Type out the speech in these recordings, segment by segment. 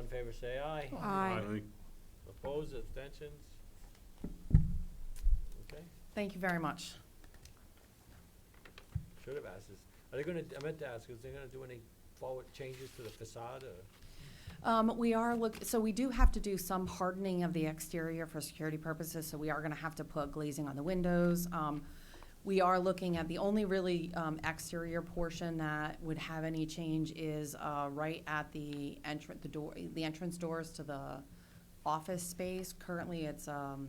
in favor say aye. Aye. Opposed, abstentions? Okay, Thank you very much. should have asked this. Are they gonna, I meant to ask, is they gonna do any forward changes to the facade or? Um, we are look, so we do have to do some hardening of the exterior for security purposes, so we are gonna have to put glazing on the windows. Um, we are looking at, the only really, um, exterior portion that would have any change is, uh, right at the entrance, the door, the entrance doors to the office space. Currently, it's, um,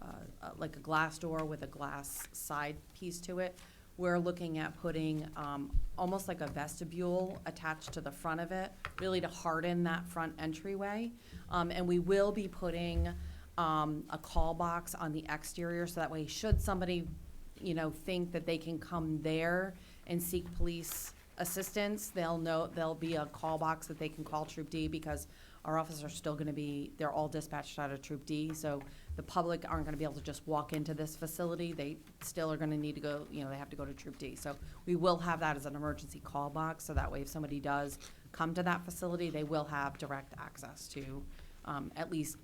uh, uh, like a glass door with a glass side piece to it. We're looking at putting um, almost like a vestibule attached to the front of it, really to harden that front entryway. Um, And we will be putting um, a call box on the exterior, so that way, should somebody, you know, think that they can come there and seek police assistance, they'll know, there'll be a call box that they can call Troop D, because our officers are still gonna be, they're all dispatched out of Troop D, so the public aren't gonna be able to just walk into this facility, they still are gonna need to go, you know, they have to go to Troop D. So we will have that as an emergency call box, so that way if somebody does come to that facility, they will have direct access to, um, at least,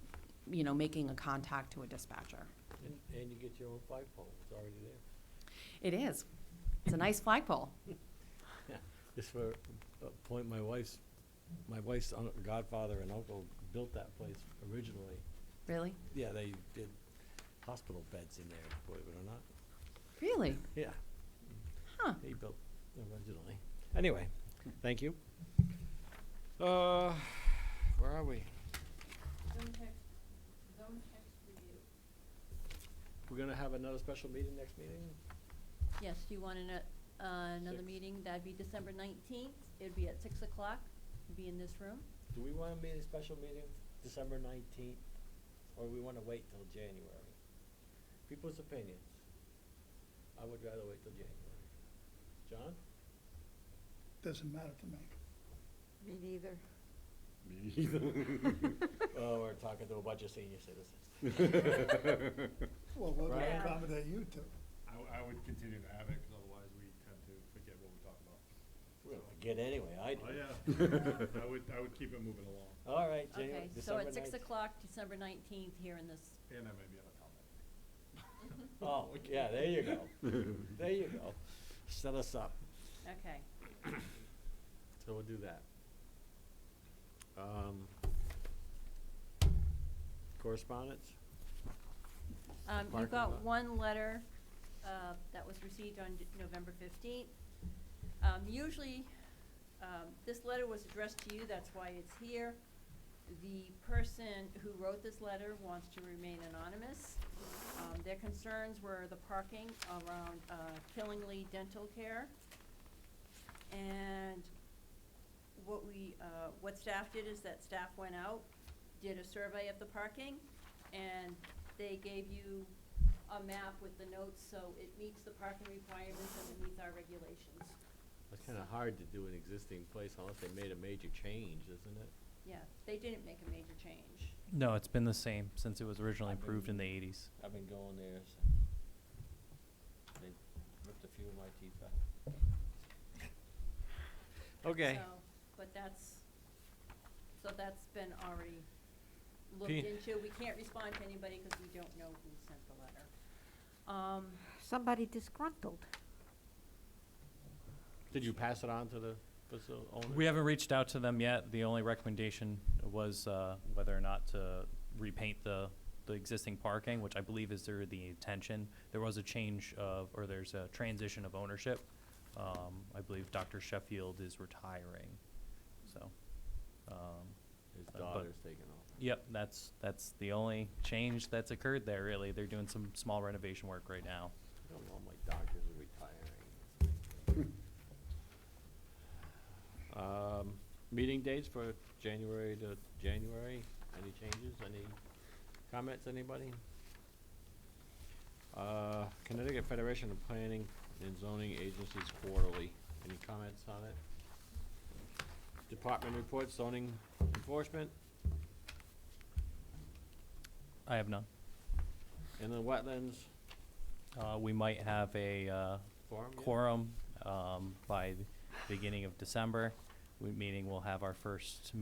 you know, making a contact to a dispatcher. And, and you get your own flagpole, it's already there. It is, it's a nice flagpole. Just for a point, my wife's, my wife's un- godfather and uncle built that place originally. Really? Yeah, they did hospital beds in there, believe it or not. Really? Yeah, Huh. he built originally. Anyway, thank you. Uh, where are we? We're gonna have another special meeting next meeting? Yes, do you want an, uh, another Six. meeting? That'd be December nineteenth. It'd be at six o'clock. It'd Be in this room. Do we wanna meet a special meeting December nineteenth, or we wanna wait till January? People's opinions. I would rather wait till January. John? Doesn't matter to me. Me neither. Oh, we're talking to a bunch of senior citizens. Well, we're gonna Right. accommodate you two. I, w- I would continue to have it, 'cause otherwise we tend to forget what we talk about. We're gonna get anyway, I do. Oh, yeah, I would, I would keep it moving along, All right, January, Okay, so December at six nineteenth. o'clock, December nineteenth, here in this, and I may be out of town. that day. Oh, yeah, there you go. There you go. Set us up. okay. So we'll do that. Um, correspondence? Um, you Parking lot. got one letter, uh, that was received on D- November fifteenth. Um, usually, um, this letter was addressed to you, that's why it's here. The person who wrote this letter wants to remain anonymous. Um, their concerns were the parking around, uh, Killingley Dental Care. And what we, uh, what staff did is that staff went out, did a survey of the parking, and they gave you a map with the notes, so it meets the parking requirements and it meets our regulations, It's kinda hard to do an existing place unless they made a major change, isn't it? yeah, they didn't make a major change. No, it's been the same since it was originally I've been- approved in the eighties. I've been going there since. They ripped a few of my teeth out. Okay. So, But that's, so that's been already looked P- into, we can't respond to anybody because we don't know who sent the letter. Um, Somebody disgruntled. Did you pass it on to the facility owner? We haven't reached out to them yet. The only recommendation was uh, whether or not to repaint the, the existing parking, which I believe is their, the intention. There was a change of, or there's a transition of ownership. Um, I believe Dr. Sheffield is retiring, so. um, His but- daughter's taking over. Yep, that's, that's the only change that's occurred there, really. They're doing some small renovation work right now. I don't know, my doctors are retiring. Um, meeting dates for January to January, any changes, any comments, anybody? Uh, Connecticut Federation of Planning and Zoning Agencies Quarterly, any comments on it? Department reports, zoning enforcement, I have none. and the wetlands Uh, we might have a, uh, forum. yeah? quorum, um, by the beginning of December. We, meaning we'll have our first